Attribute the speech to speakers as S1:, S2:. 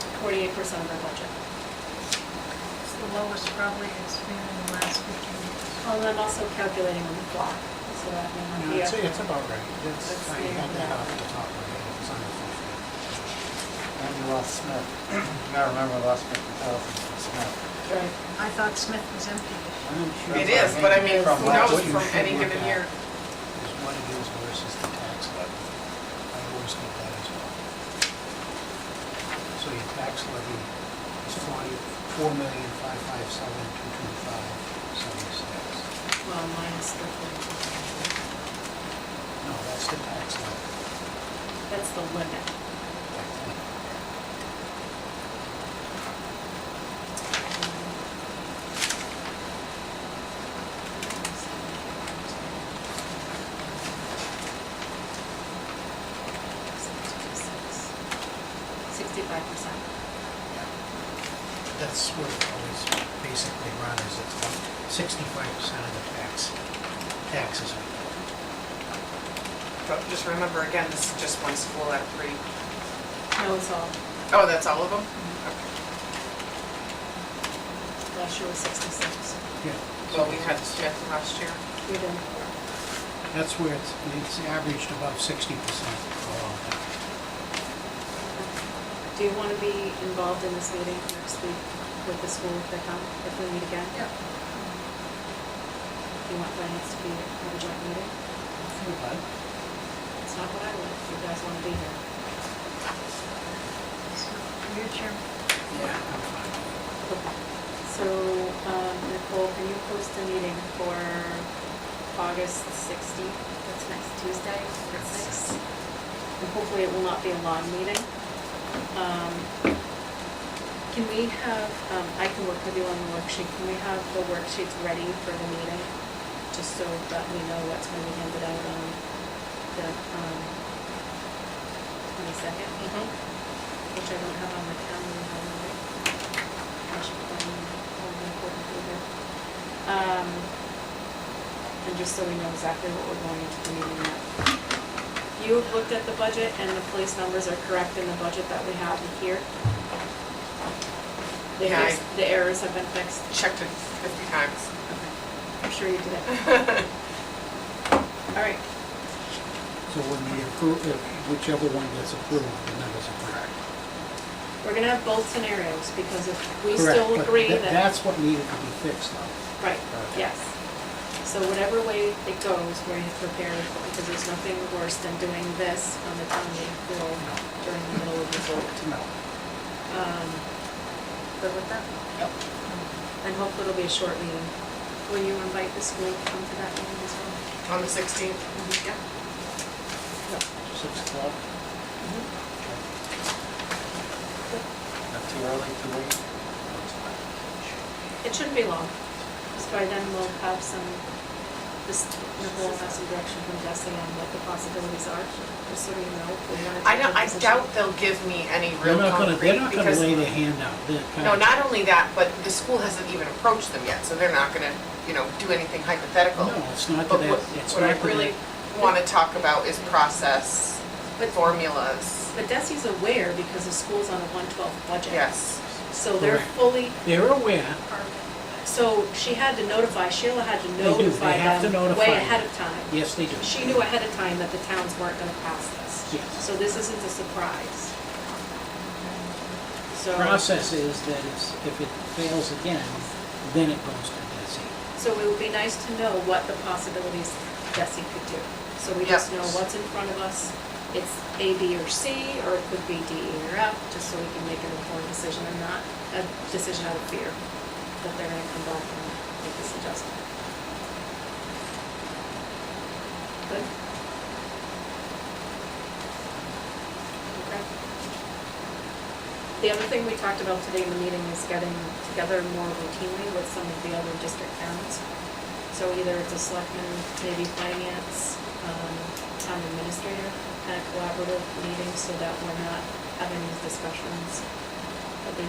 S1: percent of our budget.
S2: It's the lowest probably it's been in the last 15 years.
S1: Well, and I'm also calculating on the fly, so that may not
S3: No,
S1: be.
S3: it's,
S1: a-
S3: it's about right. It's,
S1: Let's
S3: I
S1: see.
S3: had that off the top of my head. It was under fifty. And Ross Smith. I remember the last fifty thousand from Smith.
S1: Right.
S2: I thought Smith was empty this year.
S4: It is, but I mean,
S3: From
S4: who
S3: what-
S4: knows
S3: what you
S4: from
S3: should
S4: any
S3: look
S4: given
S3: at
S4: year.
S3: Is what it is versus the tax levy. I always get that as well. So your tax levy is forty, four million, five, five, seven, two, two, five, seventy-six.
S1: Well, minus the forty.
S3: No, that's the tax levy.
S1: That's the limit. Sixty-five percent.
S3: That's what it always basically runs, is it's about sixty-five percent of the tax, taxes we pay.
S4: But just remember, again, this is just one school at three.
S1: No, it's all,
S4: Oh, that's all of them? Okay.
S1: last year was sixty-six.
S4: Well, we had Smith last year.
S1: We did
S3: That's where it's, it's averaged above sixty percent for a long time.
S1: Do you want to be involved in this meeting next week with the school if they come, if we meet again?
S2: Yeah.
S1: Do you want finance to be at a joint meeting? It's not what I want, if you guys want to be here.
S2: So, Your chair,
S3: Yeah, I'm fine.
S1: Okay. So, um, Nicole, can you post a meeting for August 16th? That's next Tuesday at six. And hopefully it will not be a long meeting. Um, Can we have, um, I can work with you on the worksheet, can we have the worksheets ready for the meeting? Just so that we know what's going to be handed out on the um, 22nd, which I don't have on my calendar. by the way. I should put in all the important people. Um, And just so we know exactly what we're going into the meeting at. You have looked at the budget and the police numbers are correct in the budget that we have here? The
S4: Yeah, I-
S1: errors- The errors have been fixed?
S4: Checked it 50 times.
S1: Okay. I'm sure you did it. All right,
S3: So when we approve, if whichever one gets approved, the numbers are correct.
S1: we're gonna have both scenarios, because if we
S3: Correct,
S1: still
S3: but
S1: agree
S3: tha-
S1: that,
S3: That's what needed to be fixed though.
S1: right,
S3: Okay.
S1: yes. So whatever way it goes, we're prepared, because there's nothing worse than doing this on the town meeting floor during the middle of the vote.
S3: No.
S1: Um, Good with that?
S3: Yep.
S1: And hopefully it'll be a short meeting. Will you invite the school to come to that meeting as well?
S4: On the 16th,
S1: Yeah.
S4: Mm-hmm.
S3: Six o'clock.
S4: Mm-hmm.
S5: Not too early, too late?
S1: It shouldn't be long, because by then we'll have some, this, Nicole will have some direction from Jesse on what the possibilities are, just so we know. if we wanna
S4: I
S1: take
S4: don't,
S1: a
S4: I
S1: position.
S4: doubt they'll give me any
S3: They're
S4: real
S3: not gonna, they're not
S4: concrete
S3: gonna
S4: because,
S3: lay their hand out. They're kind
S4: no,
S3: of-
S4: not only that, but the school hasn't even approached them yet, so they're not gonna, you know, do anything hypothetical.
S3: No, it's not to
S4: But
S3: that,
S4: what,
S3: it's
S4: what I
S3: not to
S4: really
S3: that.
S4: wanna talk about is process,
S1: But-
S4: formulas,
S1: But Desi's aware because the school's on a one-twelve budget.
S4: yes.
S1: So they're
S3: Correct.
S1: fully,
S3: They're aware,
S1: so she had to notify, Sheila had to
S3: They do. They
S1: notify
S3: have to
S1: them
S3: notify
S1: way
S3: them.
S1: ahead of time.
S3: yes, they do.
S1: She knew ahead of time that the towns weren't gonna pass this.
S3: Yes.
S1: So this isn't a surprise. So.
S3: Process is that it's, if it fails again, then it goes to DESI.
S1: So it would be nice to know what the possibilities Desi could do. So we just
S4: Yep.
S1: know what's in front of us. It's A, B, or C, or it could be D, E, or F, just so we can make an informed decision and not a decision out of fear that they're gonna come back and make this adjustment. Good? Okay. The other thing we talked about today in the meeting is getting together more routinely with some of the other district towns. So either it's a selectman, maybe finance, um, town administrator, kind of collaborative meeting so that we're not having these discussions